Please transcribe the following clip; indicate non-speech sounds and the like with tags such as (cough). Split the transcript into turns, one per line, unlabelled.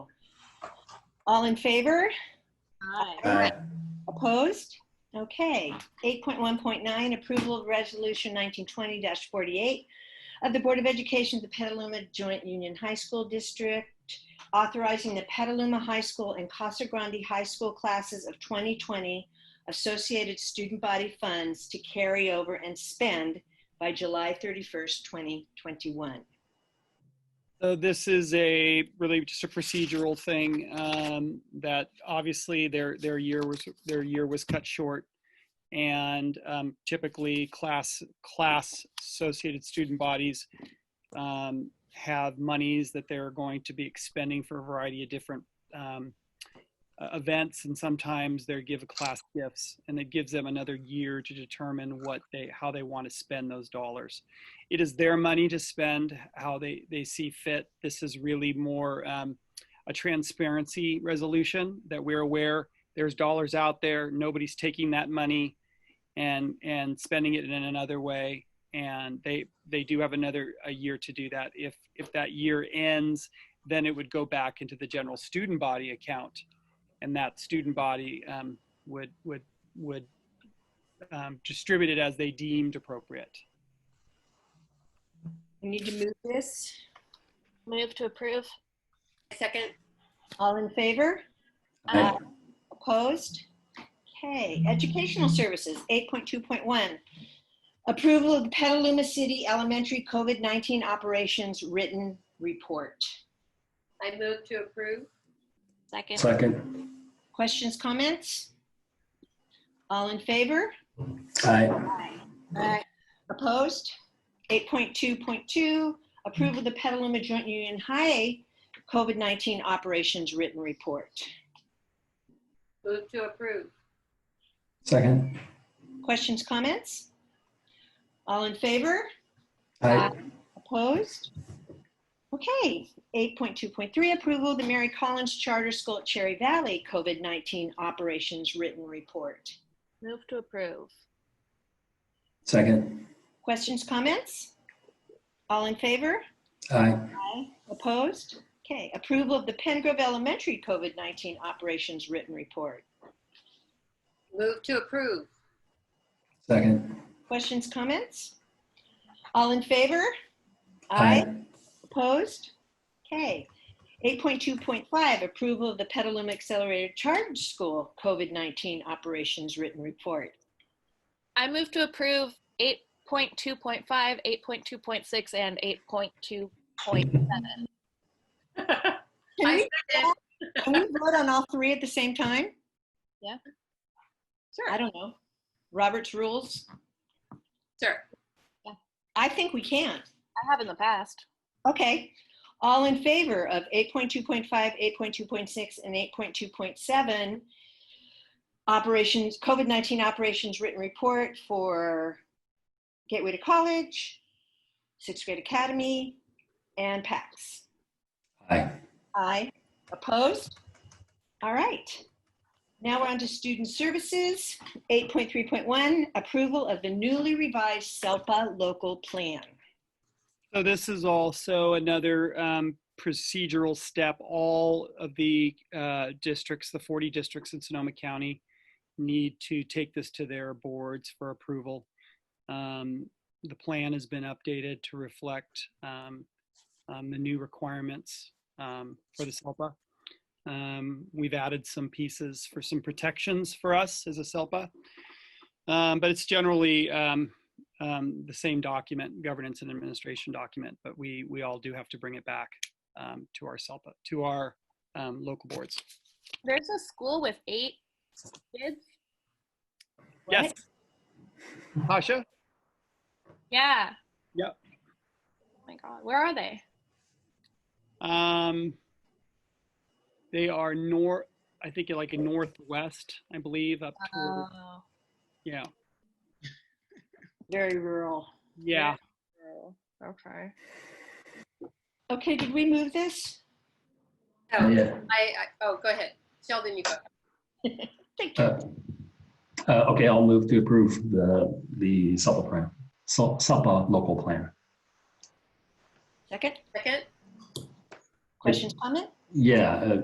All in favor?
Aye.
Opposed? Okay. 8.1.9, approval of resolution 1920-48 of the Board of Education of the Petaluma Joint Union High School District authorizing the Petaluma High School and Casa Grande High School classes of 2020 associated student body funds to carry over and spend by July 31st, 2021.
So this is a really just a procedural thing um, that obviously their their year was their year was cut short, and um, typically class class associated student bodies um, have monies that they're going to be expending for a variety of different um, uh, events, and sometimes they give class gifts, and it gives them another year to determine what they how they want to spend those dollars it is their money to spend how they, they see fit. This is really more um, a transparency resolution that we're aware there's dollars out there. Nobody's taking that money and and spending it in another way. And they they do have another a year to do that. If if that year ends, then it would go back into the general student body account, and that student body um, would would would um, distribute it as they deemed appropriate.
We need to move this.
Move to approve.
Second.
All in favor?
Uh,
Aye.
Opposed? Okay, educational services, 8.2.1. Approval of the Petaluma City Elementary COVID-19 Operations Written Report.
I move to approve.
Second.
Second.
Questions, comments? All in favor?
Aye.
Aye.
Opposed? 8.2.2, approval of the Petaluma Joint Union High COVID-19 Operations Written Report.
Move to approve.
Second.
Questions, comments? All in favor?
Aye.
Opposed? Okay, 8.2.3, approval of the Mary Collins Charter School at Cherry Valley COVID-19 Operations Written Report.
Move to approve.
Second.
Questions, comments? All in favor?
Aye.
Aye. Opposed? Okay, approval of the Pengrove Elementary COVID-19 Operations Written Report.
Move to approve.
Second.
Questions, comments? All in favor? Opposed? Okay. 8.2.5, approval of the Petaluma Accelerated Charge School COVID-19 Operations Written Report.
I move to approve 8.2.5, 8.2.6, and 8.2.7.
(laughs)
Can we,
I second.
can we vote on all three at the same time?
Yeah.
Sure. I don't know. Robert's rules?
Sure.
I think we can.
I have in the past.
Okay. All in favor of 8.2.5, 8.2.6, and 8.2.7, operations, COVID-19 operations written report for Gateway to College, Sixth Grade Academy, and PACS?
Aye.
Aye. Opposed? All right. Now we're on to student services. 8.3.1, approval of the newly revised SELPA local plan.
So this is also another um, procedural step. All of the uh, districts, the 40 districts in Sonoma County, need to take this to their boards for approval. Um, The plan has been updated to reflect um, um, the new requirements um, for the SELPA. Um, We've added some pieces for some protections for us as a SELPA. Um, But it's generally um, um, the same document, governance and administration document, but we, we all do have to bring it back um, to our SELPA, to our um, local boards.
There's a school with eight kids.
Yes. Tasha?
Yeah.
Yep.
Oh my God, where are they?
Um, they are north, I think like in northwest, I believe, up to,
Oh.
yeah,
Very rural.
yeah.
Oh. Okay.
Okay, did we move this?
Oh, I,
Yeah.
I, oh, go ahead. Sheldon, you go.
Thank you.
Uh, uh, Okay, I'll move to approve the, the SEPA plan, Sel- SEPA local plan.
Second?
Second?
Questions, comment?
Yeah, uh,